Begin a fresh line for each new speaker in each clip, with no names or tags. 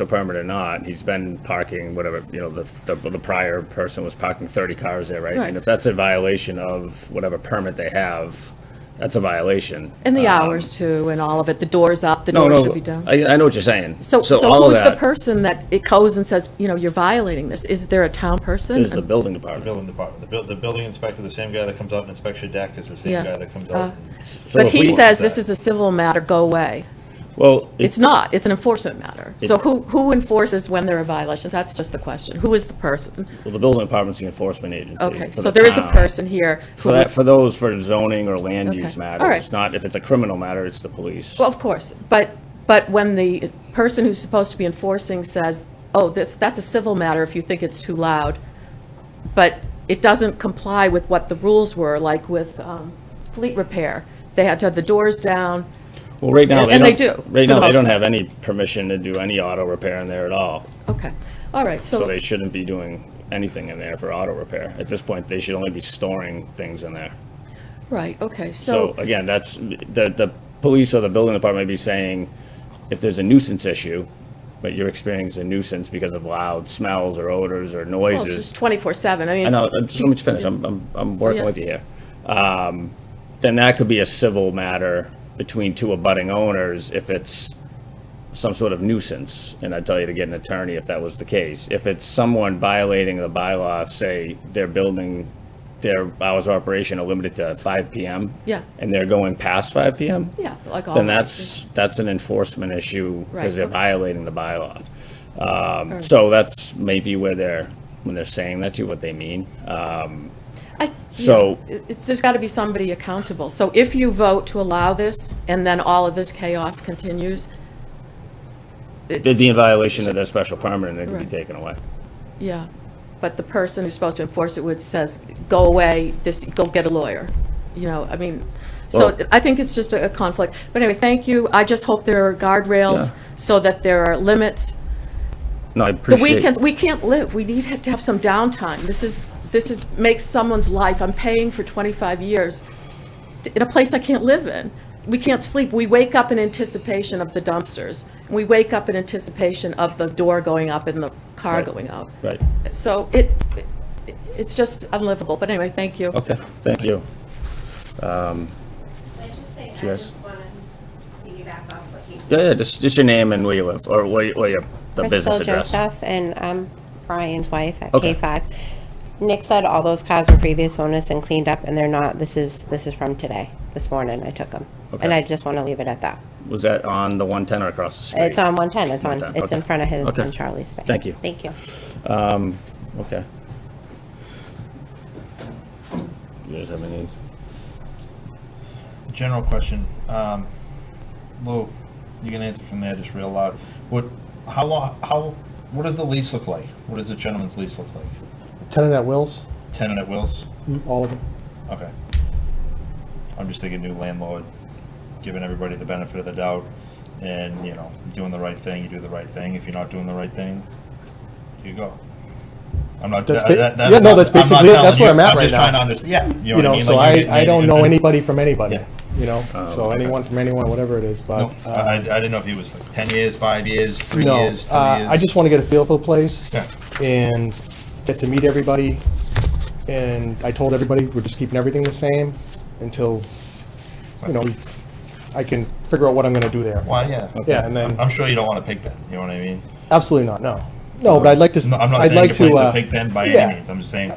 the permit or not, he's been parking whatever, you know, the, the, the prior person was parking thirty cars there, right?
Right.
And if that's a violation of whatever permit they have, that's a violation.
And the
Um,
hours too, and all of it. The door's up, the
No,
doors
no,
should be down.
I, I know what you're saying.
So, so
all of
who's the
that
person that it goes and says, you know, you're violating this? Is there a town person?
Is the building department.
Building department, the buil- the building inspector, the same guy that comes out and inspects your deck is the
Yeah.
same guy that comes
Uh,
out. and-
So
But
if
he
we-
says this is a civil matter, go away.
Well,
It's
it's,
not, it's an enforcement matter. So
It-
who, who enforces when there are violations? That's just the question. Who is the person?
well, the building department's the enforcement agency.
Okay,
for
so
the
there is a
town.
person here. who
For that, for those for zoning or land
Okay.
use
All
matters,
right.
it's not, if it's a criminal matter, it's the police.
Well, of course, but, but when the person who's supposed to be enforcing says, oh, this, that's a civil matter if you think it's too loud, but it doesn't comply with what the rules were, like with um, fleet repair. They had to have the doors down.
Well, right now,
And-
they
and they
don't,
do,
right
for
now,
the
they
most
don't
part.
have any permission to do any auto repair in there at all.
Okay, all right,
So
so,
they shouldn't be doing anything in there for auto repair. At this point, they should only be storing things in there.
right, okay,
So
so,
again, that's, the, the police or the building department may be saying, if there's a nuisance issue, but you're experiencing a nuisance because of loud smells or odors or
well, it's
noises.
24/7, I mean.
I know, uh, just let me finish, I'm, I'm, I'm working
Yeah.
with you here. Um, Then that could be a civil matter between two abutting owners if it's some sort of nuisance, and I'd tell you to get an attorney if that was the case. If it's someone violating the bylaw, say their building, their hours of operation are limited to five PM.
Yeah.
And they're going past five PM.
Yeah, like all.
Then that's, that's an enforcement issue
Right,
because they're
okay.
violating the bylaw. Um, So that's maybe where they're, when they're saying that to you, what they mean.
I-
So,
it- it's, there's got to be somebody accountable. So if you vote to allow this, and then all of this chaos continues,
they'd
it's,
be in violation of their special permit and they could be
Right.
taken away.
yeah. But the person who's supposed to enforce it would says, go away, this, go get a lawyer, you know, I mean, so
Well-
I think it's just a a conflict. But anyway, thank you. I just hope there are guardrails
Yeah.
so that there are limits.
No, I
The
appreciate.
weekend, we can't live. We need to have some downtime. This is, this is, makes someone's life, I'm paying for 25 years t- in a place I can't live in. We can't sleep. We wake up in anticipation of the dumpsters. We wake up in anticipation of the door going up and the car
Right.
going up.
Right,
So it, it- it's just unlivable. But anyway, thank you.
okay, thank you.
Can I just say, I
Yes.
just want to piggyback off what he.
Yeah, yeah, just, just your name and where you live, or where, you- where your, the business
Crystal
address.
Joseph, and I'm Brian's wife at
Okay.
K5. Nick said all those cars were previous owners and cleaned up, and they're not, this is, this is from today, this morning, I took them. And
Okay.
I just want to leave it at that.
Was that on the one ten or across the street?
It's on 110, it's on,
110,
it's in
okay.
front of his,
Okay.
and Charlie's space.
Thank you.
Thank you.
Okay. You guys have any,
General question, um, Lou, you can answer from there just real loud. What, how long, how, what does the lease look like? What does the gentleman's lease look like?
Tenant at wills,
Tenant at wills?
all of them.
Okay. I'm just thinking new landlord, giving everybody the benefit of the doubt and, you know, doing the right thing, you do the right thing. If you're not doing the right thing, you go. I'm not,
That's
that,
ba-
that. that-
yeah, no, that's
I'm not
basically it. That's
telling
where
you.
I'm at right
just trying
now.
to understand- Yeah.
You
what
know,
mean?
so
Like, you get-
I, I
you
don't
get-
know anybody from anybody,
Yeah. Oh,
you know? So anyone from anyone, whatever it is, but. uh,
No, I, I I didn't know if he was like ten years, five years, three
No,
years, two
uh,
years.
I just want to get a feel for the place
Yeah.
and get to meet everybody. And I told everybody, we're just keeping everything the same until, you know, I can figure out what I'm going to do there.
Why, yeah.
Yeah, and
I'm-
then,
I'm sure you don't want a pig pen, you know what I mean?
absolutely not, no. No, but I'd like to, s-
No, I'm not
I'd
saying
like
your
to.
place is
uh,
a pig pen by
yeah.
any means, I'm just saying,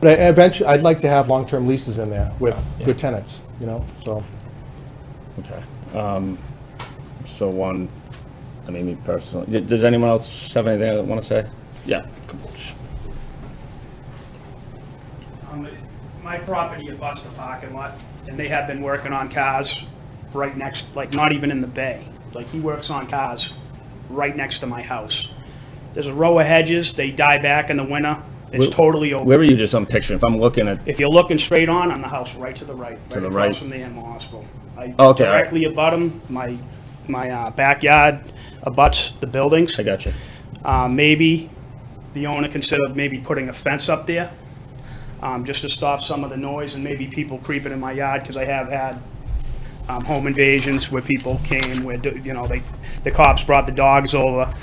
But I- eventually, I'd like to have long-term leases in there with good tenants, you know, so.
okay. Um, so one, I mean, me personally, d- does anyone else have anything they want to say? Yeah.
Um, My property abuts the parking lot, and they have been working on cars right next, like, not even in the bay. Like, he works on cars right next to my house. There's a row of hedges, they die back in the winter, it's
Where-
totally
Where
open.
were you just on picture? If I'm looking at,
If you're looking straight on, I'm the house right to the right.
To the
across
right.
From the animal hospital. I
all right.
Directly abut them, my, my uh, backyard abuts the buildings.
I got you.
Uh, Maybe the owner considered maybe putting a fence up there, um, just to stop some of the noise and maybe people creeping in my yard, because I have had um, home invasions where people came, where, you know, they, the cops brought the dogs over,